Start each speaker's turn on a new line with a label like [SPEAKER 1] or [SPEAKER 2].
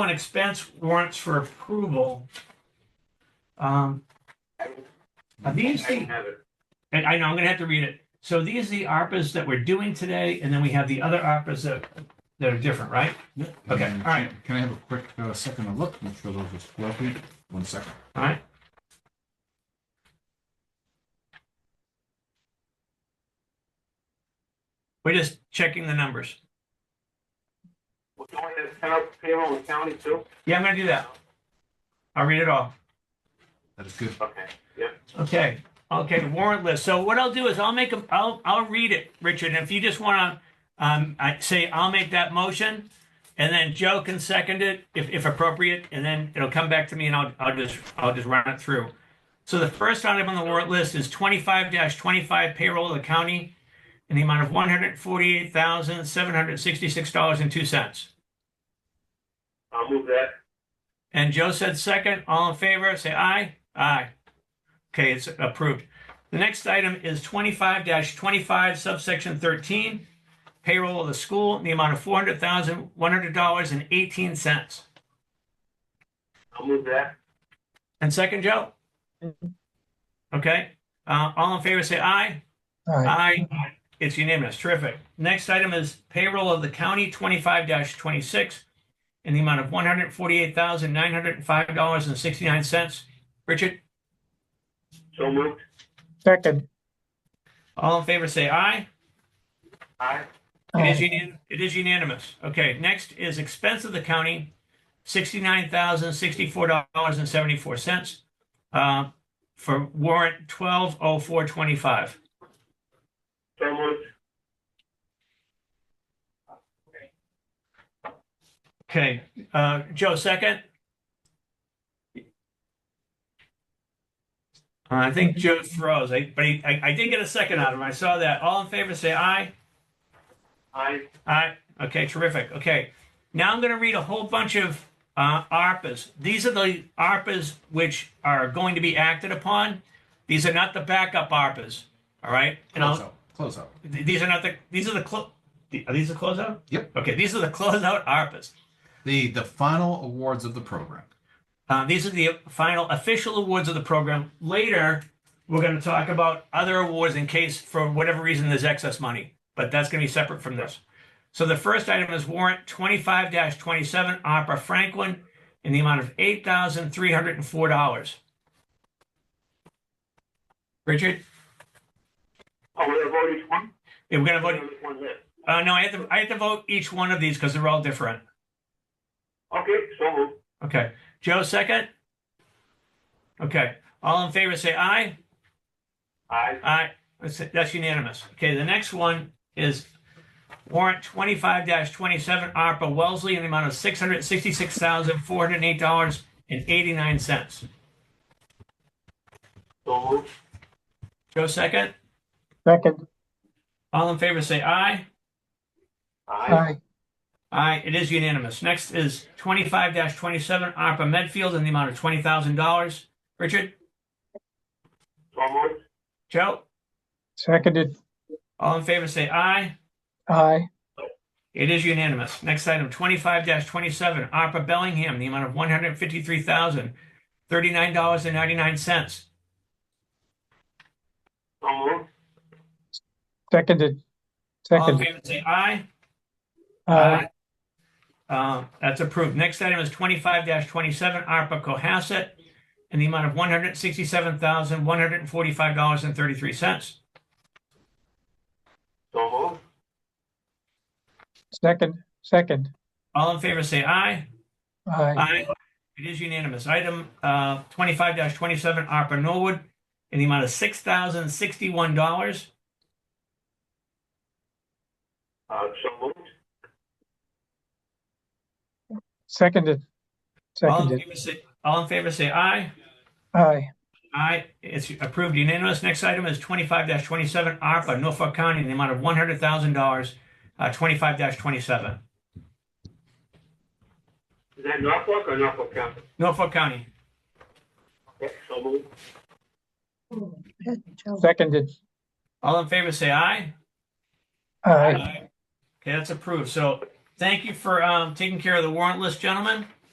[SPEAKER 1] on expense warrants for approval. Um, are these the,
[SPEAKER 2] have it.
[SPEAKER 1] and I know, I'm gonna have to read it. So these are the ARPAs that we're doing today, and then we have the other ARPAs that, that are different, right?
[SPEAKER 3] Yeah.
[SPEAKER 1] Okay,
[SPEAKER 3] And
[SPEAKER 1] all right.
[SPEAKER 3] Can I have a quick uh, second to look, make sure those are appropriate? One second.
[SPEAKER 1] All right. We're just checking the numbers.
[SPEAKER 2] Well, don't we have payroll- payroll with county too?
[SPEAKER 1] Yeah, I'm gonna do that. I'll read it all.
[SPEAKER 3] That is good.
[SPEAKER 2] Okay,
[SPEAKER 1] Okay, okay, warrant list. So what I'll do is I'll make a, I'll, I'll read it, Richard. If you just want to, um, I say I'll make that motion and then Joe can second it if, if appropriate, and then it'll come back to me and I'll, I'll just, I'll just run it through. So the first item on the warrant list is twenty-five twenty-five payroll of the county in the amount of one hundred forty-eight thousand, seven hundred sixty-six dollars and two cents.
[SPEAKER 2] I'll move that.
[SPEAKER 1] And Joe said second, all in favor, say aye. Aye. Okay, it's approved. The next item is twenty-five twenty-five subsection thirteen. Payroll of the school in the amount of four hundred thousand, one hundred dollars and eighteen cents.
[SPEAKER 2] I'll move that.
[SPEAKER 1] And second, Joe? Okay, uh, all in favor, say aye.
[SPEAKER 4] Aye.
[SPEAKER 1] Aye. It's unanimous. Terrific. Next item is payroll of the county twenty-five twenty-six in the amount of one hundred forty-eight thousand, nine hundred and five dollars and sixty-nine cents. Richard?
[SPEAKER 2] So moved.
[SPEAKER 4] Second.
[SPEAKER 1] All in favor, say aye.
[SPEAKER 2] Aye.
[SPEAKER 1] It is
[SPEAKER 4] Aye.
[SPEAKER 1] unan, it is unanimous. Okay, next is expense of the county, sixty-nine thousand, sixty-four dollars and seventy-four cents, uh, for warrant twelve oh four twenty-five.
[SPEAKER 2] So moved.
[SPEAKER 1] Okay, uh, Joe, second? Uh, I think Joe froze, I, but he, I, I did get a second out of him. I saw that. All in favor, say aye.
[SPEAKER 2] Aye.
[SPEAKER 1] All right. Okay. Terrific. Okay. Now I'm going to read a whole bunch of uh, ARPAs. These are the ARPAs which are going to be acted upon. These are not the backup ARPAs. All right. And
[SPEAKER 3] Close
[SPEAKER 1] I'll,
[SPEAKER 3] out, close out.
[SPEAKER 1] th- these are not the. These are the. Clo- the- are these the closeout?
[SPEAKER 3] Yep.
[SPEAKER 1] Okay. These are the closeout ARPAs.
[SPEAKER 3] The, the final awards of the program.
[SPEAKER 1] Uh, these are the final official awards of the program. Later, we're going to talk about other awards in case, for whatever reason, there's excess money, but that's going to be separate from this. So the first item is warrant 25 27 Opera Franklin in the amount of $8,304. Richard,
[SPEAKER 2] Oh, we have voted each one?
[SPEAKER 1] if we're going to vote,
[SPEAKER 2] There's one left.
[SPEAKER 1] uh, no, I have to, I have to vote each one of these because they're all different.
[SPEAKER 2] Okay, so moved.
[SPEAKER 1] Okay. Joe, second? Okay. All in favor, say aye.
[SPEAKER 2] Aye.
[SPEAKER 1] Aye. That's, that's unanimous. Okay, the next one is warrant twenty-five twenty-seven ARPA Wellesley in the amount of six hundred sixty-six thousand, four hundred and eight dollars and eighty-nine cents.
[SPEAKER 2] So moved.
[SPEAKER 1] Joe second.
[SPEAKER 4] Second.
[SPEAKER 1] All in favor, say aye.
[SPEAKER 2] Aye.
[SPEAKER 4] Aye.
[SPEAKER 1] Aye, it is unanimous. Next is twenty-five twenty-seven ARPA Medfield in the amount of twenty thousand dollars. Richard,
[SPEAKER 2] So moved.
[SPEAKER 1] Joe,
[SPEAKER 4] Seconded.
[SPEAKER 1] all in favor, say aye.
[SPEAKER 4] Aye.
[SPEAKER 1] It is unanimous. Next item, twenty-five twenty-seven, ARPA Bellingham, the amount of one hundred fifty-three thousand, thirty-nine dollars and ninety-nine cents.
[SPEAKER 2] So moved.
[SPEAKER 4] Seconded.
[SPEAKER 1] All in
[SPEAKER 4] Seconded.
[SPEAKER 1] favor, say aye.
[SPEAKER 4] Aye.
[SPEAKER 1] Uh, that's approved. Next item is twenty-five twenty-seven, ARPA Cohasset, in the amount of one hundred sixty-seven thousand, one hundred and forty-five dollars and thirty-three cents.
[SPEAKER 2] So moved.
[SPEAKER 4] Second. Second.
[SPEAKER 1] All in favor, say aye.
[SPEAKER 4] Aye.
[SPEAKER 1] Aye. It is unanimous. Item uh, twenty-five twenty-seven, ARPA Norwood, in the amount of six thousand, sixty-one dollars.
[SPEAKER 2] Uh, so moved.
[SPEAKER 4] Seconded.
[SPEAKER 1] All in
[SPEAKER 4] Seconded.
[SPEAKER 1] favor, say- all in favor, say aye.
[SPEAKER 4] Aye.
[SPEAKER 1] Aye, it's approved unanimous. Next item is twenty-five twenty-seven, ARPA, Norfolk County, in the amount of one hundred thousand dollars, uh, twenty-five twenty-seven,
[SPEAKER 2] Is that Norfolk or Norfolk County?
[SPEAKER 1] Norfolk County.
[SPEAKER 2] Okay, so moved.
[SPEAKER 4] Seconded.
[SPEAKER 1] All in favor, say aye.
[SPEAKER 4] Aye.
[SPEAKER 1] Okay, that's approved. So thank you for, um, taking care of the warrant list, gentlemen.